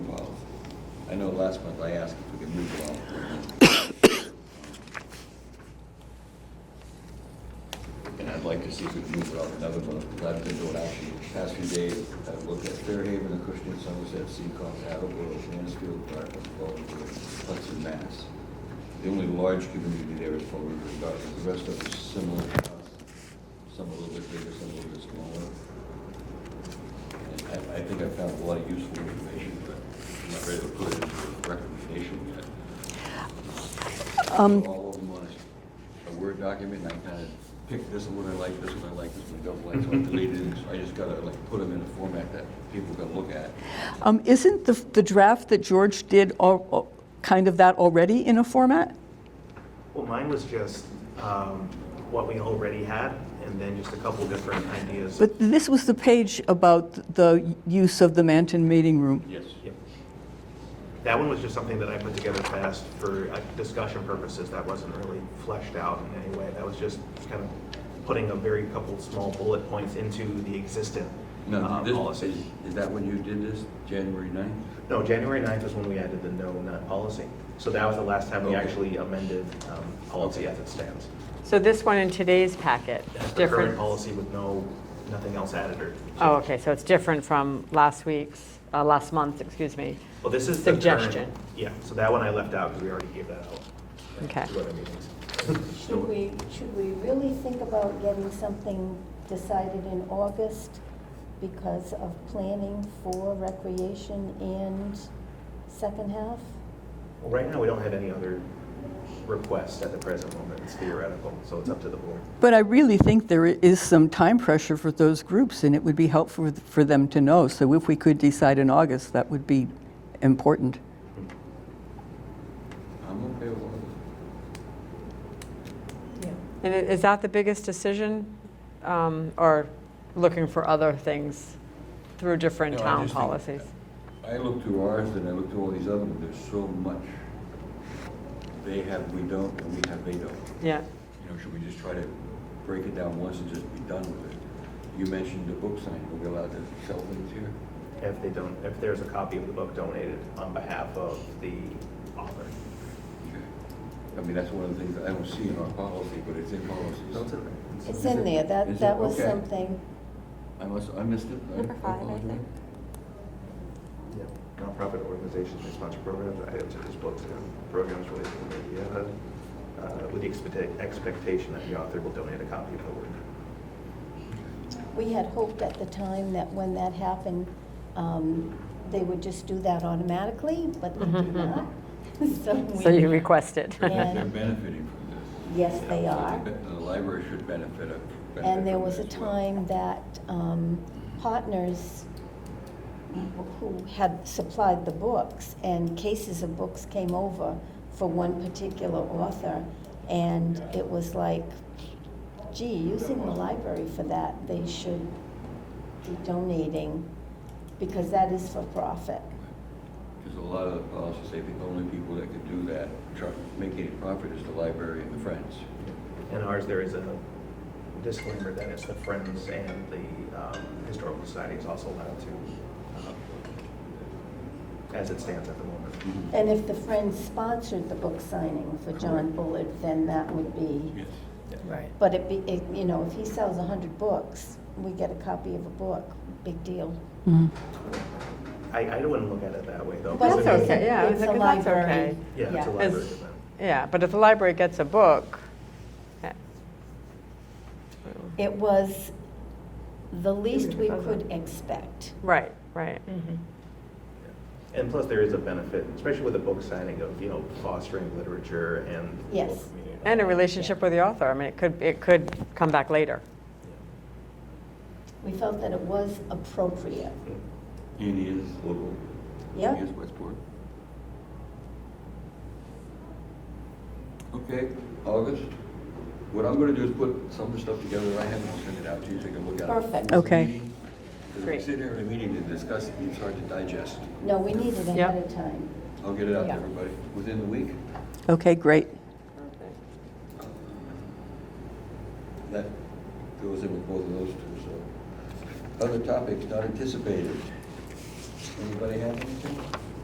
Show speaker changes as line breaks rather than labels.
I know last month I asked if we could move along. And I'd like to see if we can move it off another month, because I've been doing actually the past few days, I've looked at Fairhaven, Acushnet, Somerset, Seacom, Attleboro, Mansfield, Dartmouth, Baltimore, Hudson, Mass. The only large community there is Fall River and Dartmouth, the rest of them similar to us, some a little bit bigger, some a little bit smaller. And I, I think I found a lot of useful information, but I'm not ready to put it into a recommendation yet. All of them on a- a Word document, and I kind of picked this one, I like this one, I like this one, I don't like, so I deleted it. So I just gotta like put them in a format that people can look at.
Um, Isn't the the draft that George did al- al- kind of that already in a format?
Well, mine was just um, what we already had, and then just a couple different ideas.
But this was the page about the use of the Manton Meeting Room.
Yes.
Yep. That one was just something that I put together fast for uh, discussion purposes. That wasn't really fleshed out in any way. That was just kind of putting a very couple small bullet points into the existing
No,
uh,
this,
policy.
is, is that when you did this, January 9th?
No, January 9th is when we added the no nut policy. So that was the last time we
Okay.
actually amended um, policy as it stands.
So this one in today's packet,
That's the current
different?
policy with no, nothing else added or
Oh, okay, so it's different from last week's, uh, last month, excuse me.
Well, this is the current-
Suggestion.
Yeah, so that one I left out because we already gave that out.
Okay.
To other meetings.
Should we, should we really think about getting something decided in August because of planning for recreation and second half?
Well, Right now, we don't have any other requests at the present moment. It's theoretical, so it's up to the board.
But I really think there is some time pressure for those groups, and it would be helpful for them to know. So if we could decide in August, that would be important.
I'm okay with all of
And i- is that the biggest decision? um, Or looking for other things through different
No, I
town
just think-
policies?
it. I looked through ours and I looked through all these other ones, there's so much. They have, we don't, and we have, they don't.
Yeah,
You know, should we just try to break it down once and just be done with it? You mentioned the book sign, are we allowed to sell things here?
If they don't, if there's a copy of the book donated on behalf of the author.
I mean, that's one of the things that I don't see in our policy, but it's in
No, it's
policies.
in there.
It's in there,
Is it?
that, that was
Okay.
something.
I must, I missed it. I-
Number five, I
apologize.
think.
Yeah, Nonprofit organizations may sponsor programs, items such as books and programs related to the media, uh, with the expecta- expectation that the author will donate a copy of the work.
We had hoped at the time that when that happened, um, they would just do that automatically, but they do not.
Mm-hmm. so you
we-
requested.
They're- They're
And-
benefiting from this.
Yes, they
So
are.
be- The library should benefit of. benefit
And there
from
was a
it as well.
time that um, partners who had supplied the books, and cases of books came over for one particular author, and it was like, gee, using the library for that, they should be donating, because that is for profit.
Because a lot of the policies say the only people that could do that, try- make any profit is the library and the Friends.
In ours, there is a disclaimer that it's the Friends and the um, Historical Society is also allowed to, um, as it stands at the moment.
And if the Friends sponsored the book signing for John
Correct.
Bullard, then that would be.
Yes.
Right. But it, be- it, you know, if he sells a hundred books, we get a copy of a book, big deal.
I, I wouldn't look at it that way, though.
But
because
That's
it is-
okay, yeah, I was
it's a
thinking that's
library.
okay.
Yeah, it's a
Yeah.
library
As-
event.
Yeah, but if the library gets a book, eh,
It was the least we
Okay.
could expect.
right, right.
Mm.
And plus, there is a benefit, especially with a book signing of, you know, fostering literature and. the local
Yes.
community.
And a relationship with the author, I mean, it could, it could come back later.
We felt that it was appropriate.
And he is local.
Yeah.
He is Westport. Okay, August. What I'm gonna do is put some of the stuff together I have, and I'll send it out to you, take a look at it.
Perfect.
Before the
Okay.
meeting. 'Cause if we
Great.
sit here in a meeting to discuss it, it's hard to digest.
No, we need it
Yeah.
ahead of time.
I'll get it out to
Yeah.
everybody within the week.
Okay, great.
That goes in with both of those two, so. Other topics not anticipated. Anybody have anything?